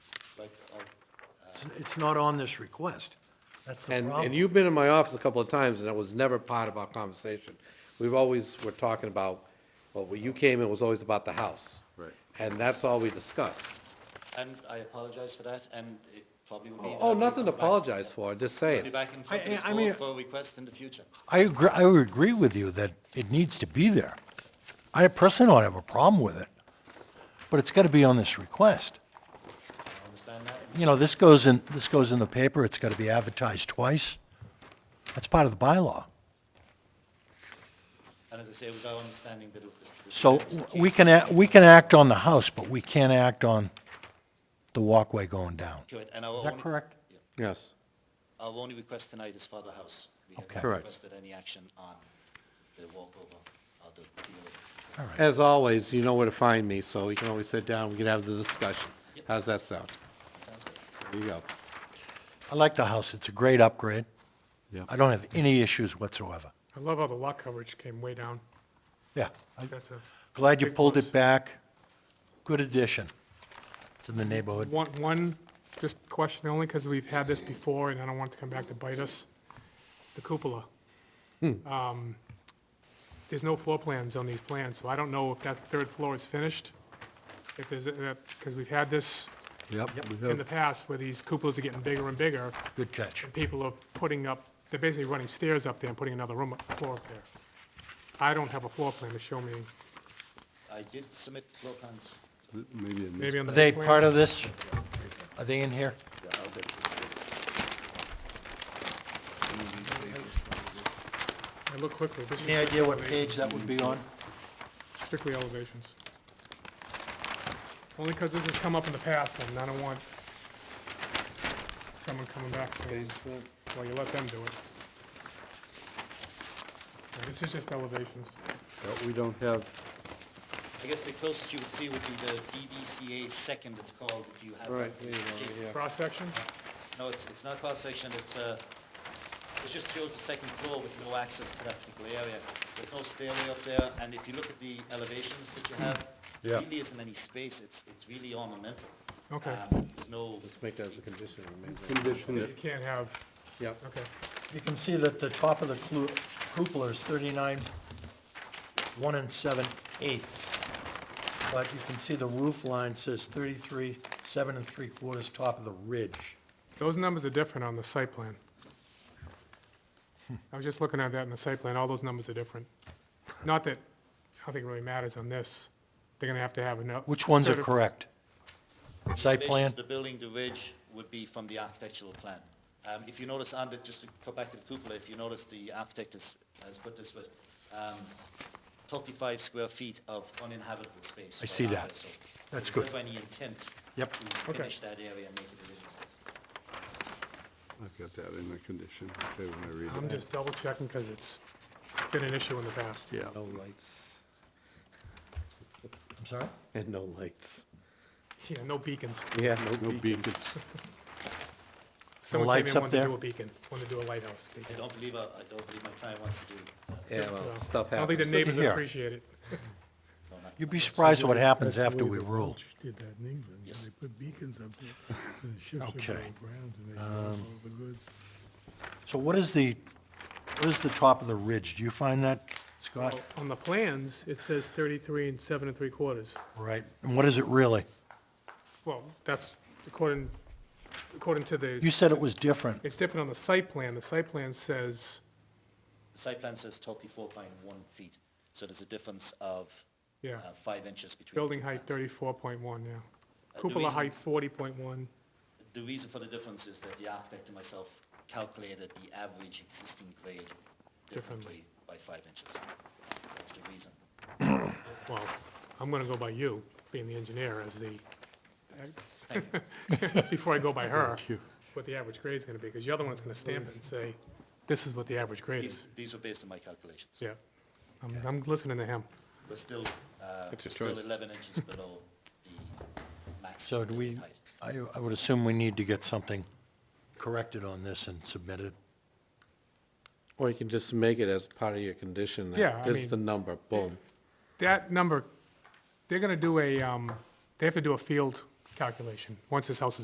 like, like, It's- It's not on this request. That's the And, and problem. you've been in my office a couple of times, and that was never part of our conversation. We've always, were talking about, well, when you came, it was always about the house. Right. And that's all we discussed. and I apologize for that, and it probably would be. Oh, nothing to Back- apologize for, just Be saying. back in I- front of this I- I mean- board for requests in the future. I agree, I would agree with you that it needs to be there. I personally don't have a problem with it, but it's got to be on this request. I understand that. You know, this goes in, this goes in the paper, it's got to be advertised twice. That's part of the bylaw. And as I say, it was our understanding that it was. So we can, a- we can act on the house, but we can't act on the walkway going down. Is Is that correct? Yes. Our only request tonight is for the house. We have Okay. not Correct. requested any action on the walkover or the the- As always, you know where to find me, so you can always sit down, we can have the discussion. How's that sound? Sounds good. There you go. I like the house, it's a great upgrade. Yeah. I don't have any issues whatsoever. I love how the lot coverage came way down. Yeah, I'm That's a glad you pulled Big it plus. back. Good addition to the neighborhood. One, one, just question only, because we've had this before, and I don't want it to come back to bite us. The cupola. Um, There's no floor plans on these plans, so I don't know if that third floor is finished. If there's, because we've had this Yep. we in have- the past where these cupolas are getting bigger and bigger, Good catch. and people are putting up, they're basically running stairs up there and putting another room, floor up there. I don't have a floor plan to show me, I did submit floor plans. Maybe I missed. maybe on Are the. they plan. part of this? Are they in here? I look quickly. This is Any idea what strictly page that would be on? eleva- Strictly elevations. Only because this has come up in the past, and I don't want someone coming back saying, well, you let them do it. Yeah, This is just elevations. Uh, We don't have, I guess the closest you would see would be the DVCA second, it's called, if you have. that. Right, there you go, yeah. Cross-section? No, it's, it's not cross-section, it's, uh, it just shows the second floor with no access to that particular area. There's no stairway up there, and if you look at the elevations that you have, Yeah. really isn't any space, it's, it's really ornamental. Okay. Um, There's no, Just make that as a condition, it remains. condition You that, can't have, Yep. okay. You can see that the top of the clu- cupola is 39, 1 and 7 eighths. But you can see the roof line says 33, 7 and 3 quarters, top of the ridge. Those numbers are different on the site plan. I was just looking at that in the site plan, all those numbers are different. Not that, I don't think it really matters on this. They're gonna have to have enough. Which ones are certi- correct? Site plan? elevations of the building, the ridge would be from the architectural plan. Um, if you notice, and just to go back to the cupola, if you notice, the architect has, has put this with, um, thirty-five square feet of uninhabitable space. I right see out that. there, so there's That's good. never any intent. Yep. To Okay. finish that area and make it a living space. I've got that in the condition, okay, when I read it. I'm just double checking, because it's been an issue in the past. Yeah, No lights, I'm sorry? and no lights. Yeah, no beacons. Yeah, no beacons. Someone came lights in up wanted to there? do a beacon, wanted to do a lighthouse I beacon. don't believe, uh, I I don't believe my client wants to do uh, that. Yeah, well, stuff I don't think the happens. neighbors would here. appreciate it. No, not- You'd be surprised what happens after we rule. Welch Did that in England, when Yes. they put beacons up there, and the ships would go Okay. Um, aground and they drove all the goods. So what is the, what is the top of the ridge? Do you find that, Scott? Well, On the plans, it says thirty-three and seven and three quarters. Right, and what is it really? Well, that's according, according to the. You said it was different. It's different on the site plan. The site plan says, The site plan says thirty-four point one feet, so there's a difference of, yeah, uh, five inches between. the building two height plans. thirty-four point one, yeah. the Cupola reason- height forty point one, The reason for the difference is that the architect and myself calculated the average existing grade differently Differently. by five inches. That's the reason. well, I'm gonna go by you, being the engineer, as the, before I go by her, what the average grade's gonna be, because the other one's gonna stamp it and say, this is what the average grade These, is. these were based on my calculations. Yeah. I'm, I'm listening to him. We're still, uh, we're It's your still choice. eleven inches below the So maximum do building we, height. I, I would assume we need to get something corrected on this and submitted. Or you can just make it as part of your condition. that Yeah, I This mean- is the number, boom. That number, they're gonna do a, um, they have to do a field calculation, once this house is